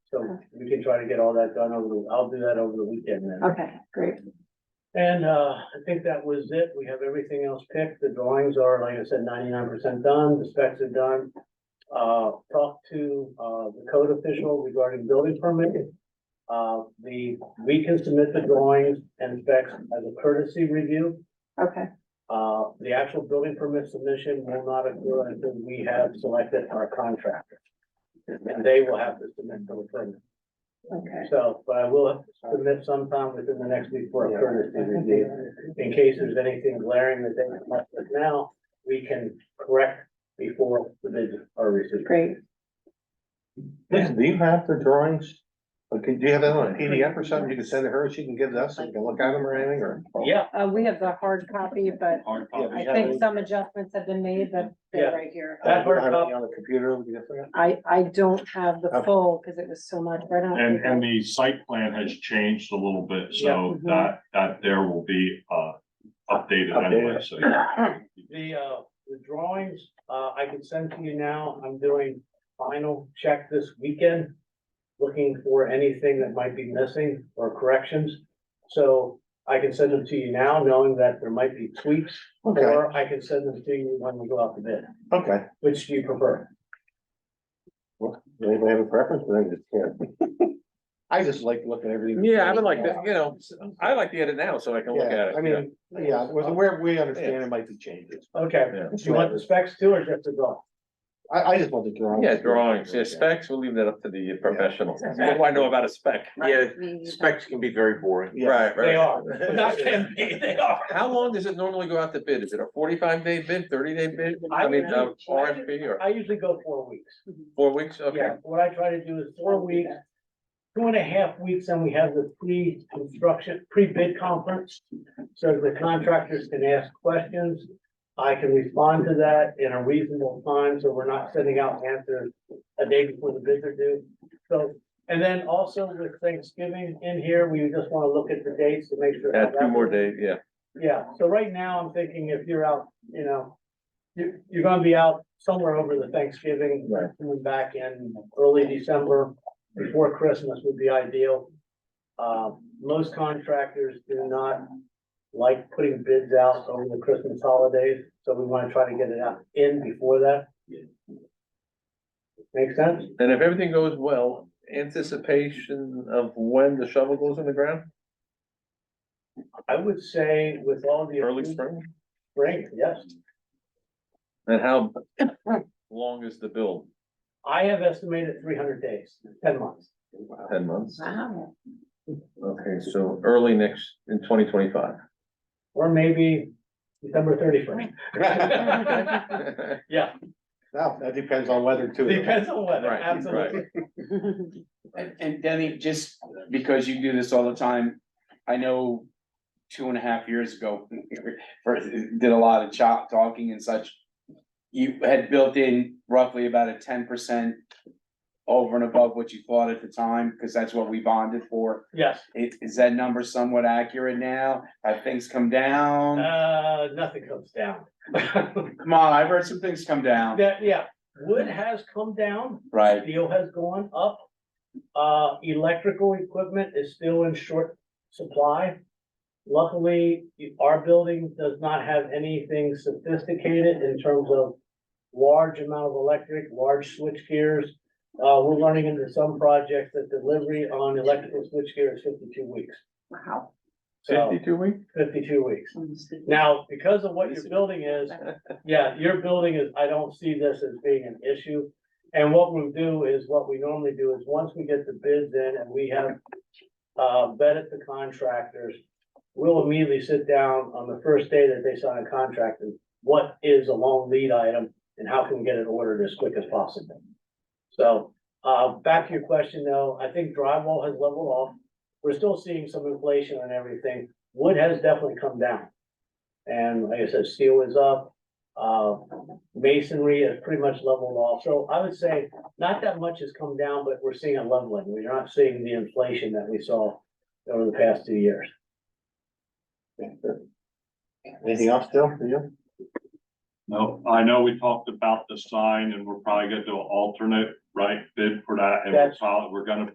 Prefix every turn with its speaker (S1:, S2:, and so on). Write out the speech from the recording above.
S1: so we can try to get all that done over, the I'll do that over the weekend then.
S2: Okay, great.
S1: And, uh, I think that was it. We have everything else picked. The drawings are, like I said, ninety-nine percent done, the specs are done. Uh, talked to, uh, the code official regarding building permit. Uh, the, we can submit the drawings and specs as a courtesy review.
S2: Okay,
S1: Uh, the actual building permit submission will not occur until we have selected our contractor. And they will have to submit the permit.
S2: okay.
S1: So, but I will submit sometime within the next week for a courtesy review. In case there's anything glaring that they can help with now, we can correct before the bids are received.
S2: Great.
S3: Listen, do you have the drawings? Okay, do you have that on a PDF or something? You can send to her, she can give it us, and we can look at them or anything, or?
S1: Yeah,
S2: Uh, we have the hard copy, but
S4: Hard
S3: Yeah,
S4: copy.
S3: we
S2: I
S3: have
S2: think
S3: it.
S2: some adjustments have been made, but they're
S1: Yeah.
S2: right here.
S1: That hard
S3: I have
S1: copy.
S3: it On the computer, we can look at it.
S2: I, I don't have the
S3: Okay.
S2: full, because it was so much, but I don't.
S4: And,
S2: think
S4: and the site plan has changed a little bit,
S1: Yeah. mhm.
S4: so that, that there will be, uh, updated anyway, so.
S1: the, uh, the drawings, uh, I can send to you now. I'm doing final check this weekend. Looking for anything that might be missing or corrections. So I can send them to you now, knowing that there might be tweaks.
S3: Okay,
S1: Or I can send them to you when we go out to bid.
S3: okay.
S1: Which do you prefer?
S3: Well, Anybody have a preference? I think it's, yeah. I just like looking at everything.
S5: Yeah, I would like, to, you know, I like to get it now so I can look
S3: Yeah,
S5: at it.
S3: I mean, yeah, with- where we understand it might be changes.
S1: Okay,
S5: Yeah.
S1: do you want the specs too or just the drawing?
S3: I, I just want the drawings.
S5: Yeah, drawings, yeah, specs, we'll leave that up to the professionals. What do I know about a spec?
S6: Yeah,
S2: we-
S6: specs can be very boring.
S3: Yeah.
S5: Right,
S1: They
S5: right.
S1: are.
S5: Not can be, they are. How long does it normally go out to bid? Is it a forty-five day bid, thirty day bid? I mean, uh, RFP or
S1: I usually go four weeks.
S5: four weeks? Okay,
S1: Yeah, what I try to do is four weeks, two and a half weeks, and we have the pre-construction, pre-bid conference. So the contractors can ask questions. I can respond to that in a reasonable time, so we're not sending out answers a day before the bids are due. So, and then also with Thanksgiving in here, we just want to look at the dates to make sure.
S5: yeah, two more days, yeah.
S1: Yeah, so right now I'm thinking if you're out, you know, you, you're gonna be out somewhere over the Thanksgiving,
S3: Right.
S1: coming back in early December, before Christmas would be ideal. Uh, most contractors do not like putting bids out over the Christmas holidays, so we wanna try to get it out in before that. Make sense?
S5: And if everything goes well, anticipation of when the shovel goes in the ground,
S1: I would say with all the.
S5: early spring?
S1: Spring, yes.
S5: And how long is the build?
S1: I have estimated three hundred days, ten months.
S5: Ten months?
S2: Wow,
S5: Okay, so early next, in twenty twenty-five.
S1: Or maybe December thirty-first.
S5: Right,
S1: Yeah,
S3: Now, that depends on weather too.
S1: depends on weather,
S5: right.
S1: absolutely.
S7: And, and Denny, just because you do this all the time, I know two and a half years ago, first, did a lot of chop talking and such. You had built in roughly about a ten percent over and above what you thought at the time, because that's what we bonded for.
S1: Yes,
S7: Is, is that number somewhat accurate now? Have things come
S5: Um,
S7: down?
S1: uh, nothing comes down.
S7: Come on, I've heard some things come down,
S1: That, yeah, wood has come down,
S7: right?
S1: steel has gone up. Uh, electrical equipment is still in short supply. Luckily, our building does not have anything sophisticated in terms of large amount of electric, large switch gears. Uh, we're running into some projects that delivery on electrical switch gear is fifty-two weeks.
S2: wow.
S1: So,
S5: Fifty-two weeks?
S1: fifty-two weeks. Now, because of what your building is, yeah, your building is, I don't see this as being an issue. And what we'll do is, what we normally do is, once we get the bids in and we have uh, vetted the contractors, we'll immediately sit down on the first day that they sign a contract and what is a long lead item and how can we get it ordered as quick as possible? So, uh, back to your question though, I think drywall has leveled off. We're still seeing some inflation and everything. Wood has definitely come down. And like I said, steel is up, uh, masonry is pretty much leveled off, so I would say not that much has come down, but we're seeing a leveling, we're not seeing the inflation that we saw over the past two years.
S3: Anything else still for you?
S4: No, I know we talked about the sign and we're probably gonna do an alternate, right, bid for that, and we're
S1: That's-
S4: probably, we're gonna